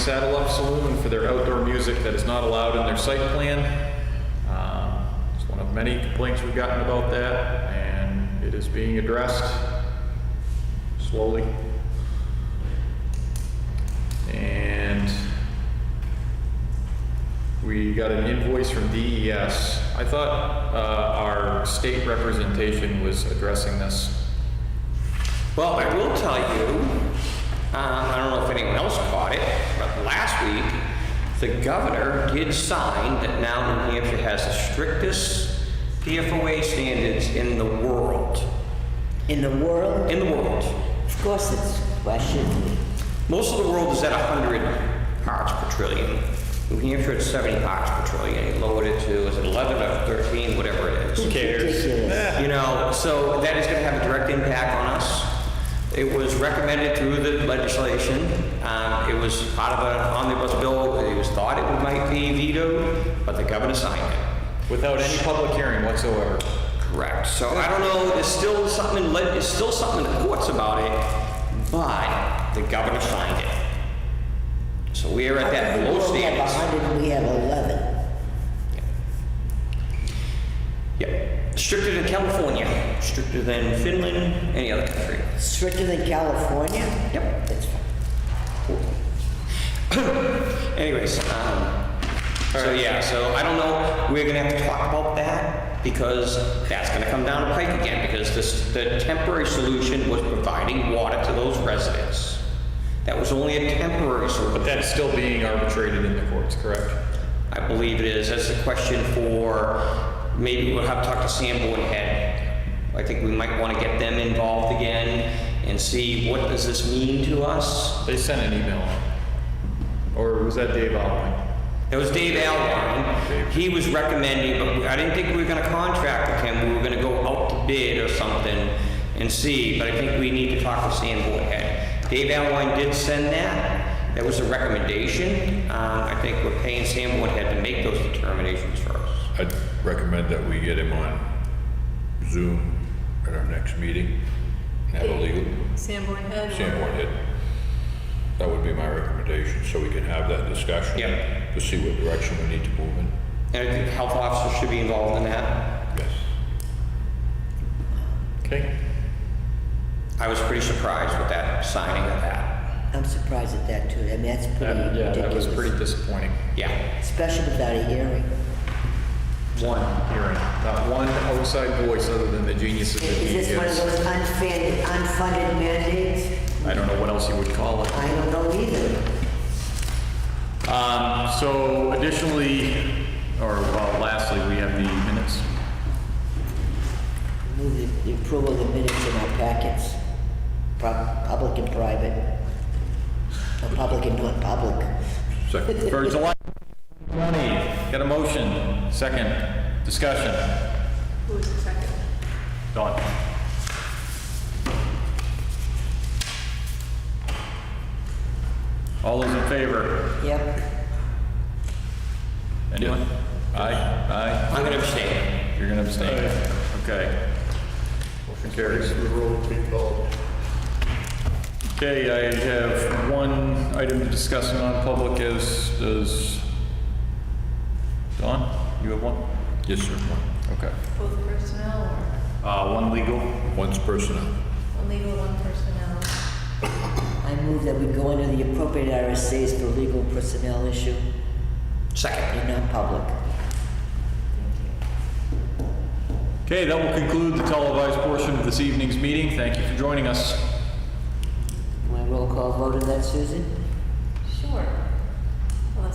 Saddle Up Saloon for their outdoor music that is not allowed in their site plan. Um, It's one of many complaints we've gotten about that, and it is being addressed slowly. And we got an invoice from DES. I thought uh, our state representation was addressing this. Well, I will tell you, um, I don't know if anyone else caught it, but last week, the governor did sign that now New Hampshire has the strictest PFOA standards in the world. In the world, In the world. of course it's questioned. Most of the world is at 100 parts per trillion. New Hampshire at 70 parts per trillion. He lowered it to, is it 11 or 13, whatever it is. Ridiculous. You know, so that is going to have a direct impact on us. It was recommended through the legislation. Um, It was part of an omnibus bill. It was thought it might be vetoed, but the governor signed it. Without any public hearing whatsoever. Correct. So I don't know, there's still something, in leg- there's still something in the courts about it, but the governor signed it. So we are at that low We have standards. 100, we have 11. Yep. Stricter than California, stricter than Finland, any other country. Stricter than California? Yep. That's fine. Anyways, um, so yeah, so I don't know, we're gonna have to talk about that because that's gonna come down the pike again because this, the temporary solution was providing water to those residents. That was only a temporary But solution. that's still being arbitrated in the courts, correct? I believe it is, that's a question for, maybe we'll have to talk to Sanborn Head. I think we might wanna get them involved again and see what does this mean to us? They sent an email. Or was that Dave Alwyn? It was Dave Alwine. He was recommending, but I didn't think we were gonna contract with him. We were gonna go out to bid or something and see, but I think we need to talk to Sanborn Head. Dave Alwine did send that. That was a recommendation. Um, I think we're paying Sanborn Head to make those determinations for us. I'd recommend that we get him on Zoom at our next meeting, and have a legal, Sanborn Head. Sanborn hit. That would be my recommendation, so we can have that discussion. Yep. To see what direction we need to move in. And I think health officers should be involved in that. Yes. Okay. I was pretty surprised with that signing of that. I'm surprised at that too. I mean, that's pretty That- Yeah, ridiculous. that was pretty disappointing. Yeah, Especially without a hearing. One hearing, not one outside voice other than the geniuses that Is he this one of is. those unfunded, unfunded mandates? I don't know what else you would call it. I don't know either. Um, So additionally, or well, lastly, we have the minutes. Move the- the approval of the minutes in our packets, Pub- public and private, or public and non-public. Second. For July 20, got a motion, second, discussion. Who was the second? Done. All those in favor? Yep. Anyone? Aye, aye. I'm gonna abstain. You're gonna abstain? Okay. Motion carries. Okay, I have one item to discuss in non-public is, does, Don, you have one? Yes, sir. One- Okay. Both personnel or Uh, one legal? One's personnel. one legal, one personnel? I move that we go into the appropriate RSAs for legal personnel issue Second. in non-public. Okay, that will conclude the televised portion of this evening's meeting. Thank you for joining us. My roll call vote on that, Susan? Sure.